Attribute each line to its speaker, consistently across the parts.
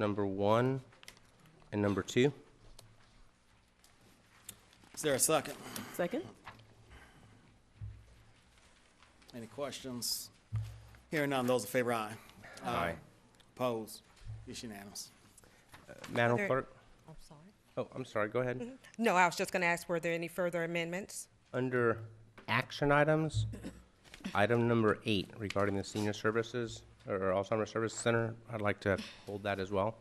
Speaker 1: number one, and number two.
Speaker 2: Is there a second?
Speaker 3: Second?
Speaker 2: Any questions? Hearing none, those in favor, aye.
Speaker 1: Aye.
Speaker 2: Opposed? It's unanimous.
Speaker 1: Madam
Speaker 4: there-
Speaker 1: Clerk?
Speaker 4: I'm sorry.
Speaker 1: Oh, I'm sorry, go ahead.
Speaker 4: No, I was just going to ask, were there any further amendments?
Speaker 1: Under action items, item number eight regarding the senior services or Alzheimer's Service Center, I'd like to hold that as well.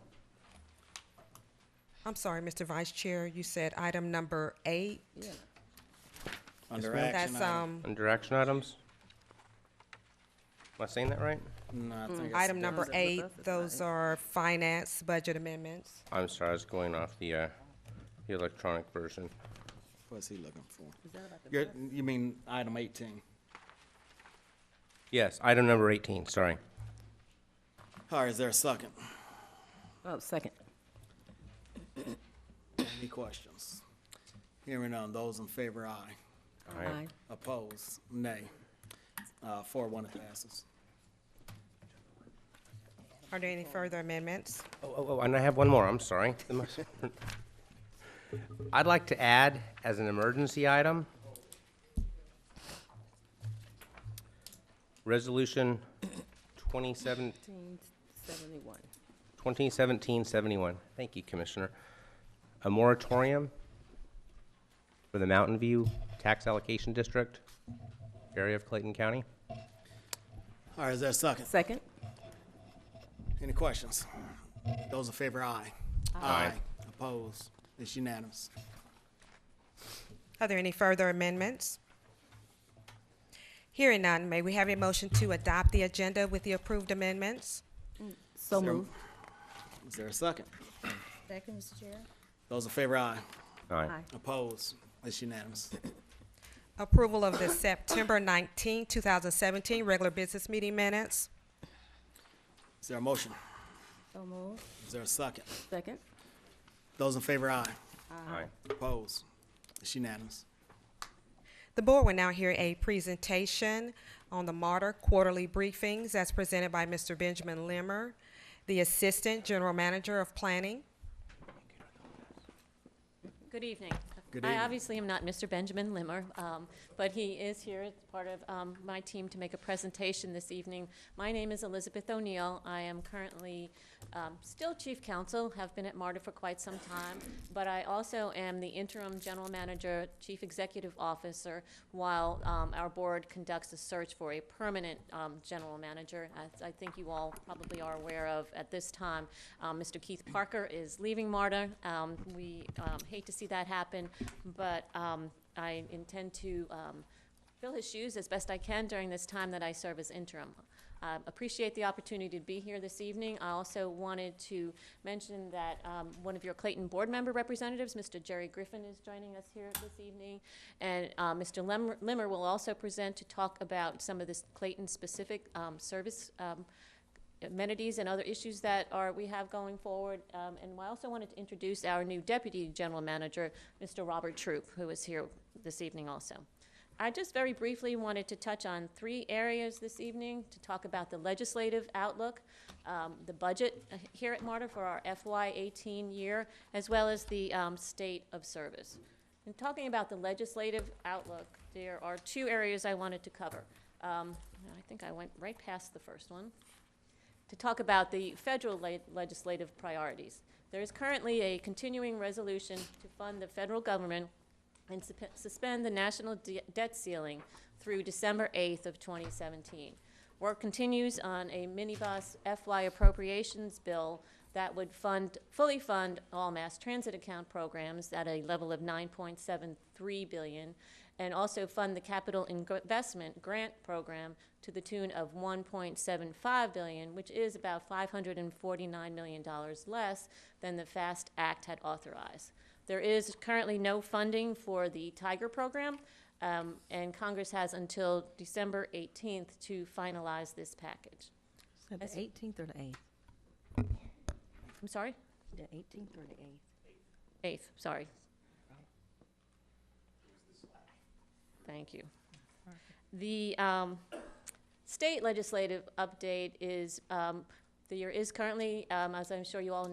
Speaker 4: I'm sorry, Mr. Vice Chair, you said item number eight.
Speaker 2: Under
Speaker 1: ma'am.
Speaker 2: action
Speaker 4: That's,
Speaker 2: item.
Speaker 4: um,
Speaker 1: Under action items? Am I saying that right?
Speaker 2: No, I think it's
Speaker 4: um, mm, item number
Speaker 2: different.
Speaker 4: eight, those are finance budget amendments.
Speaker 1: I'm sorry, I was going off the, uh, the electronic version.
Speaker 2: What's he looking for? You're, you mean item eighteen?
Speaker 1: Yes, item number eighteen, sorry.
Speaker 2: All right, is there a second?
Speaker 3: Oh, second.
Speaker 2: Any questions? Hearing none, those in favor, aye.
Speaker 1: All right.
Speaker 2: Opposed, nay. Uh, four, one, it passes.
Speaker 4: Are there any further amendments?
Speaker 1: Oh, oh, oh, and I have one more, I'm sorry. The most- I'd like to add, as an emergency item, Resolution 27
Speaker 3: 1971.
Speaker 1: 2017-71, thank you, Commissioner, a moratorium for the Mountain View Tax Allocation District area of Clayton County.
Speaker 2: All right, is there a second?
Speaker 3: Second?
Speaker 2: Any questions? Those in favor, aye.
Speaker 1: Aye.
Speaker 2: Opposed, it's unanimous.
Speaker 4: Are there any further amendments? Hearing none, may we have a motion to adopt the agenda with the approved amendments?
Speaker 3: So
Speaker 2: Is there-
Speaker 3: moved.
Speaker 2: Is there a second?
Speaker 5: Second, Mr. Chair.
Speaker 2: Those in favor, aye.
Speaker 1: Aye.
Speaker 2: Opposed, it's unanimous.
Speaker 4: Approval of the September 19, 2017 regular business meeting minutes?
Speaker 2: Is there a motion?
Speaker 5: So moved.
Speaker 2: Is there a second?
Speaker 3: Second?
Speaker 2: Those in favor, aye.
Speaker 1: Aye.
Speaker 2: Opposed, it's unanimous.
Speaker 4: The board will now hear a presentation on the Martyr Quarterly Briefings as presented by Mr. Benjamin Limmer, the Assistant General Manager of Planning.
Speaker 6: Good evening.
Speaker 2: Good
Speaker 6: I
Speaker 2: evening.
Speaker 6: obviously am not Mr. Benjamin Limmer, um, but he is here as part of um, my team to make a presentation this evening. My name is Elizabeth O'Neill. I am currently um, still chief counsel, have been at MARTA for quite some time, but I also am the interim general manager, chief executive officer, while um, our board conducts a search for a permanent um, general manager. As I think you all probably are aware of at this time, um, Mr. Keith Parker is leaving MARTA. Um, We um, hate to see that happen, but um, I intend to um, fill his shoes as best I can during this time that I serve as interim. Uh, Appreciate the opportunity to be here this evening. I also wanted to mention that um, one of your Clayton Board member representatives, Mr. Jerry Griffin, is joining us here this evening. And uh, Mr. Lem- Limmer will also present to talk about some of this Clayton-specific um, service um, amenities and other issues that are, we have going forward. Um, and I also wanted to introduce our new deputy general manager, Mr. Robert Troop, who is here this evening also. I just very briefly wanted to touch on three areas this evening to talk about the legislative outlook, um, the budget uh, here at MARTA for our FY eighteen year, as well as the, um, state of service. In talking about the legislative outlook, there are two areas I wanted to cover. Um, I think I went right past the first one to talk about the federal le- legislative priorities. There is currently a continuing resolution to fund the federal government and sup- suspend the national de- debt ceiling through December 8th of 2017. Work continues on a minibus FY appropriations bill that would fund, fully fund all mass transit account programs at a level of 9.73 billion, and also fund the capital Ingo- investment grant program to the tune of 1.75 billion, which is about 549 million dollars less than the FAST Act had authorized. There is currently no funding for the Tiger program, um, and Congress has until December 18th to finalize this package.
Speaker 7: So the
Speaker 6: As-
Speaker 7: 18th or the 8th?
Speaker 6: I'm sorry?
Speaker 7: The 18th or the 8th?
Speaker 6: 8th, sorry. Thank you. The um, state legislative update is, um, there is currently, um, as I'm sure you all